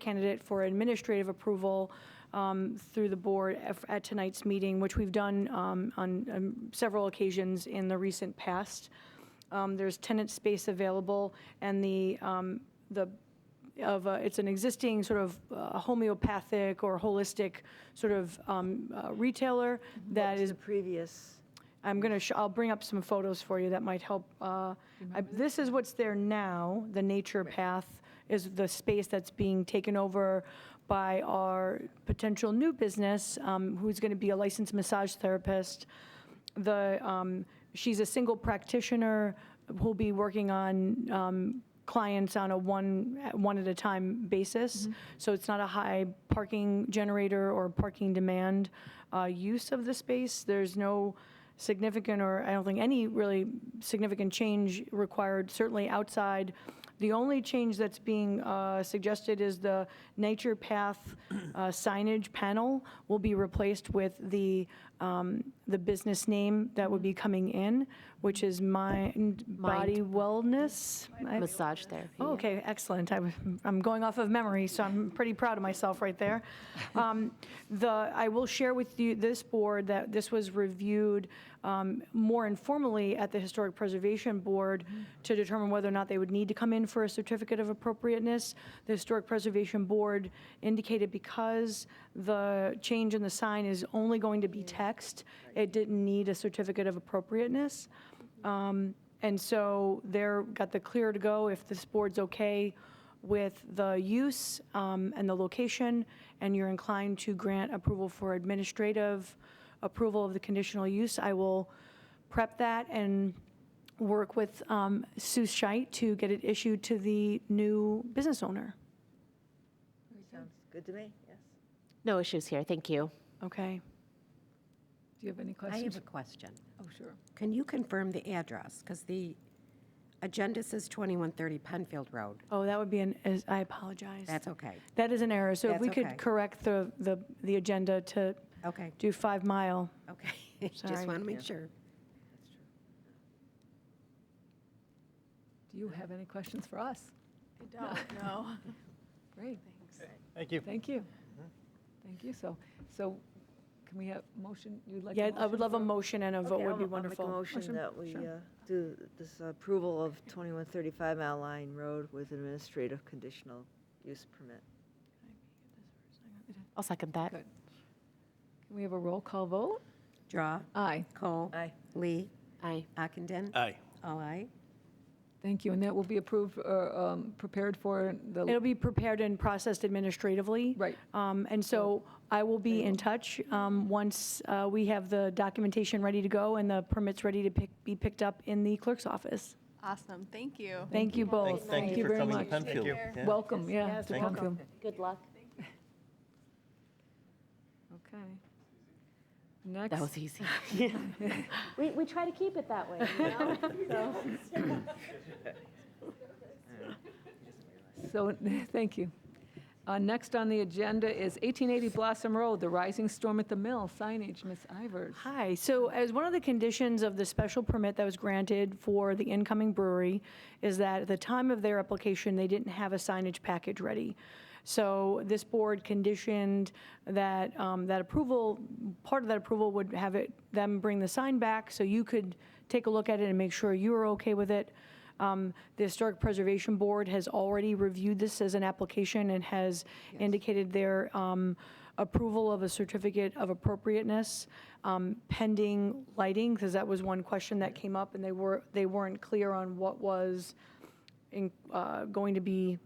candidate for administrative approval um, through the board af- at tonight's meeting, which we've done um, on um, several occasions in the recent past. Um, There's tenant space available, and the, um, the of, a- it's an existing sort of uh, homeopathic or holistic sort of um, uh, retailer that is The previous, I'm going to, I'll bring up some photos for you that might help. uh, I- This is what's there now, the nature path is the space that's being taken over by our potential new business, um, who's going to be a licensed massage therapist. The, um, she's a single practitioner who'll be working on um, clients on a one, one at a time basis. So it's not a high parking generator or parking demand uh, use of the space. There's no significant, or I don't think any really significant change required, certainly outside. The only change that's being uh, suggested is the nature path uh, signage panel will be replaced with the, um, the business name that would be coming in, which is Mind Body Wellness. I- Massage therapy. Oh, Okay, excellent. I was- I'm going off of memory, so I'm pretty proud of myself right there. Um, The, I will share with you, this board, that this was reviewed um, more informally at the Historic Preservation Board to determine whether or not they would need to come in for a certificate of appropriateness. The Historic Preservation Board indicated because the change in the sign is only going to be text, it didn't need a certificate of appropriateness. Um, And so they're, got the clear to go if this board's okay with the use um, and the location, and you're inclined to grant approval for administrative approval of the conditional use. I will prep that and work with um, Sue Scheit to get it issued to the new business owner. sounds good to me, yes. No issues here, thank you. Okay? Do you have any I have questions? a question. Oh, sure. Can you confirm the address? Because the agenda says 2130 Penfield Road. Oh, that would be an, is- I apologize. That's okay. That is an error. So if That's we could okay. correct the, the the agenda to Okay, do Five Mile. okay. Sorry. Just want to make sure. Do you have any questions for us? I don't know. Great, Thank you. thank you. Thank you. So, so can we have motion, you'd like? a Yeah, I would motion love a for- motion and a vote would be I'll wonderful. make a motion that we sure. uh, do this approval of 2135 Mile Line Road with administrative conditional use permit. I'll second that. Good. Can we have a roll call vote? Draw, Aye, Cole, Aye. Lee, Aye. Ockenden. Aye. All aye. thank you. And that will be approved, or um, prepared for the, It'll be prepared and processed administratively. Right. Um, And so I will be in touch um, once uh, we have the documentation ready to go and the permits ready to pick, be picked up in the clerk's office. Awesome, thank you. Thank you both. Thank you for very coming to much. Penfield. Yeah. welcome, yeah. Yes, to welcome. Penfield. Good luck. Okay. Next. That was easy. We, we try to keep it that way, So, thank you. Uh, Next on the agenda is 1880 Blossom Road, the Rising Storm at the Mill signage, Ms. Ivers. Hi, so as one of the conditions of the special permit that was granted for the incoming brewery is that at the time of their application, they didn't have a signage package ready. So this board conditioned that, um, that approval, part of that approval would have it, them bring the sign back so you could take a look at it and make sure you were okay with it. Um, The Historic Preservation Board has already reviewed this as an application and has indicated their um, approval of a certificate of appropriateness um, pending lighting, because that was one question that came up, and they were, they weren't clear on what was in- uh, going to be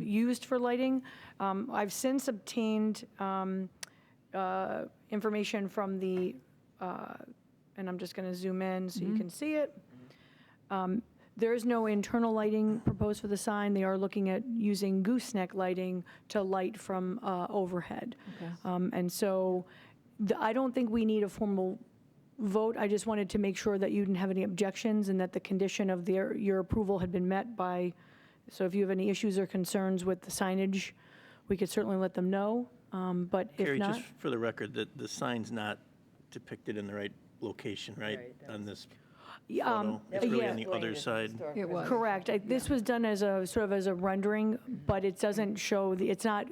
used for lighting. Um, I've since obtained um, uh, information from the, uh, and I'm just going to zoom in so you can see it. Um, There is no internal lighting proposed for the sign. They are looking at using gooseneck lighting to light from uh, overhead. Um, And so th- I don't think we need a formal vote. I just wanted to make sure that you didn't have any objections and that the condition of their, your approval had been met by, so if you have any issues or concerns with the signage, we could certainly let them know. Um, But if Carrie, not, just for the record, the, the sign's not depicted in the right location, right? On this Yeah, photo. um, It's really yeah. on the other side. It was. Correct. I- This was done as a, sort of as a rendering, but it doesn't show, the. it's not